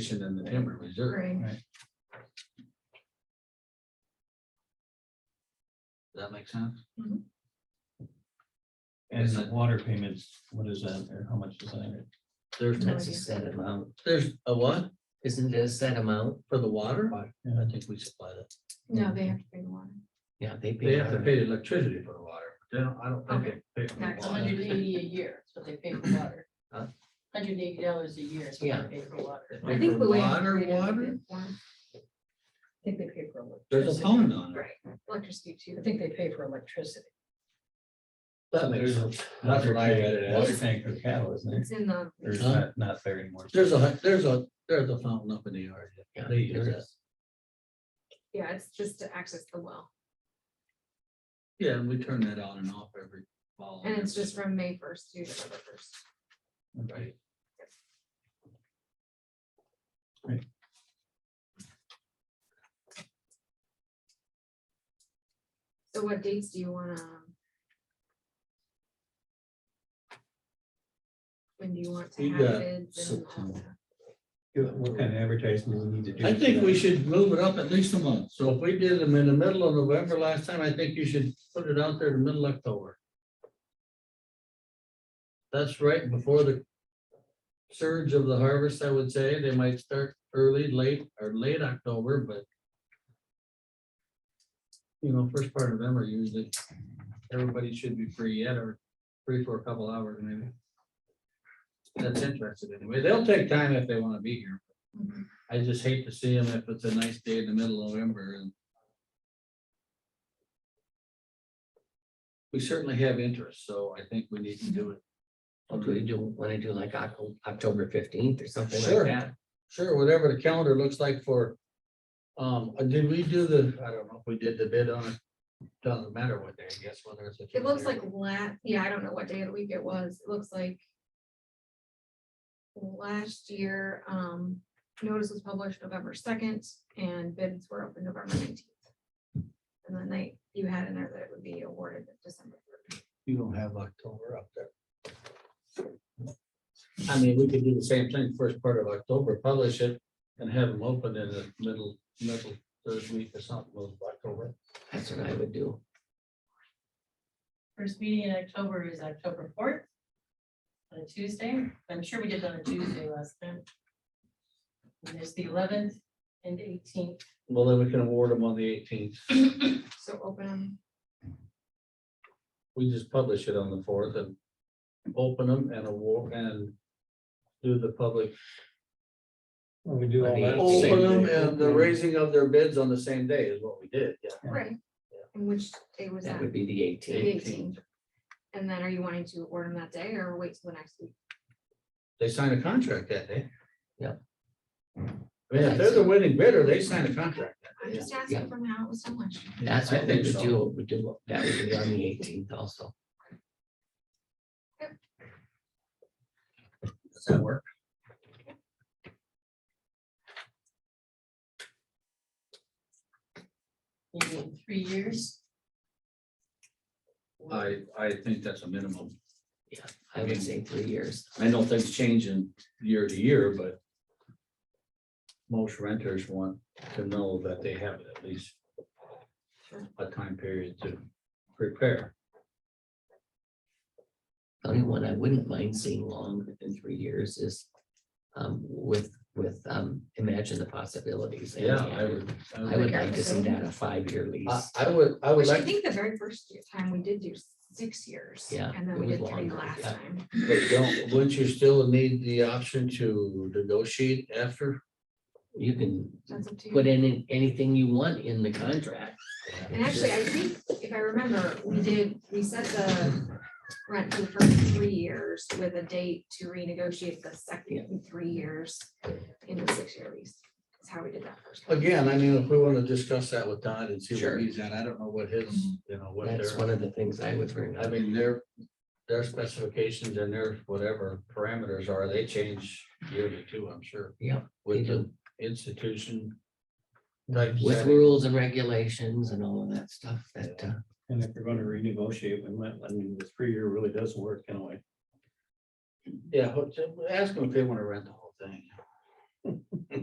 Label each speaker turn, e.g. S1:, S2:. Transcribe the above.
S1: Station and the timber reserve.
S2: Right.
S1: Does that make sense?
S3: And the water payments, what is that, or how much is that?
S1: There's,
S4: That's a
S2: idea.
S4: set amount,
S1: there's a what
S4: isn't it a set amount?
S1: for the water?
S3: Yeah.
S1: I think we supply that.
S2: No, they have to pay the water.
S4: Yeah, they pay.
S1: They have to
S4: out.
S1: pay the electricity for the water. They don't, I don't think they pay for
S2: Okay.
S1: the
S5: It's
S1: water.
S5: hundred and eighty a year, so they pay for water.
S4: Huh?
S5: Hundred and eighty dollars a year, so they
S4: Yeah.
S5: pay for water.
S1: They pay for Water, water?
S6: I think they pay for
S1: There's a
S6: electricity.
S1: phone on it.
S6: Right, electricity too. I think they pay for electricity.
S1: That makes
S3: There's a-
S1: sense. That's what I read it
S3: Water
S1: as.
S3: tank for cattle, isn't it?
S6: It's in the,
S3: There's
S1: Huh?
S3: not, not there anymore.
S1: There's a, hun- there's a, there's a fountain up in the yard.
S4: Yeah,
S1: They use
S4: there
S1: that.
S4: is.
S6: yeah, it's just to access the well.
S1: Yeah, and we turn that on and off every fall.
S6: And it's just from May first to November first.
S1: Right.
S3: Right.
S6: So what dates do you wanna? um, When do you want to
S1: We
S6: have
S1: got
S6: bids and all
S4: September.
S6: that?
S3: What kind of advertising do we need to do?
S1: I think we should move it up at least a month. So if we did them in the middle of November last time, I think you should put it out there in the middle of October. That's right before the surge of the harvest, I would say. They might start early, late, or late October, but you know, first part of them are usually, everybody should be free yet, or free for a couple hours maybe. That's interested anyway. They'll take time if they want to be here. I just hate to see them if it's a nice day in the middle of November and. We certainly have interest, so I think we need to do it.
S4: Well, Oh, Do we do, want to do like Oc- October fifteenth or something
S1: Sure.
S4: like that?
S1: Sure, whatever the calendar looks like for, um, uh, did we do the, I don't know if we did the bid on it. Doesn't matter what day, I guess, whether it's. a
S6: It looks
S1: Tuesday
S6: like
S1: or-
S6: last, yeah, I don't know what day of the week it was. It looks like last year, um, notice was published November second and bids were open November nineteenth. And the night you had in there that it would be awarded December. third.
S1: You don't have October up there. I mean, we could do the same thing first part of October, publish it and have them open in the middle, middle third week or something of October.
S4: That's what I would do.
S5: First meeting in October is October fourth. On a Tuesday, I'm sure we did it on a Tuesday last time. And there's the eleventh and eighteenth.
S1: Well, then we can award them on the eighteenth.
S6: So open them.
S1: We just publish it on the fourth and open them and award and do the public.
S3: Well, We do all that.
S4: Open
S3: same
S1: Open them
S3: day.
S1: and uh, the raising of their bids on the same day is what we did, yeah.
S6: Right. And which day was
S4: That
S6: that?
S4: would be the
S6: The
S4: eighteenth.
S6: 18th. And then are you wanting to award them that day or wait till the next week?
S1: They sign a contract that day.
S4: Yeah.
S1: I mean, if they're the winning bidder, they sign a contract. that
S6: I'm
S1: day.
S6: just asking
S4: Yeah.
S6: from how it was published.
S4: That's
S1: I
S4: what we
S1: think
S4: would
S1: so.
S4: do, we do, that would be on the eighteenth also.
S1: Does that work?
S5: Maybe in three years.
S1: I, I think that's a minimum.
S4: I would say three years.
S1: I know things change in year to year, but most renters want to know that they have at least a time period to prepare.
S4: The only one I wouldn't mind seeing longer than three years is um, with, with, um, imagine the possibilities. and
S1: Yeah,
S4: the
S1: I would.
S4: I would like to see that a five-year
S1: I,
S4: lease.
S1: I would, I would
S6: Which I
S1: like,
S6: think the very first year- time we did do six years.
S4: Yeah,
S6: And then
S4: it
S6: we
S4: was
S6: did three
S4: longer,
S6: last
S4: yeah.
S6: time.
S1: but don't, wouldn't you still need the option to negotiate after?
S4: You can
S6: That's up to
S4: put
S6: you.
S4: in anything you want in the contract.
S6: And actually, I think if I remember, we did, we set the rent for the first three years with a date to renegotiate the second three years in the six-year lease. That's how we did that first. time.
S1: Again, I mean, if we want to discuss that with Todd and see
S4: Sure.
S1: where he's at, I don't know what his, you know, what
S4: That's
S1: their,
S4: one of the things I would bring
S1: I
S4: up.
S1: mean, their, their specifications and their whatever parameters are, they change yearly too, I'm sure.
S4: Yeah,
S1: With
S4: they
S1: the institution. type
S4: With
S1: setting.
S4: rules and regulations and all of that stuff that, uh,
S3: And if you're gonna renegotiate, we might, I mean, the three year really does work in a way.
S1: uh, Yeah, but ask them if they want to rent the whole thing.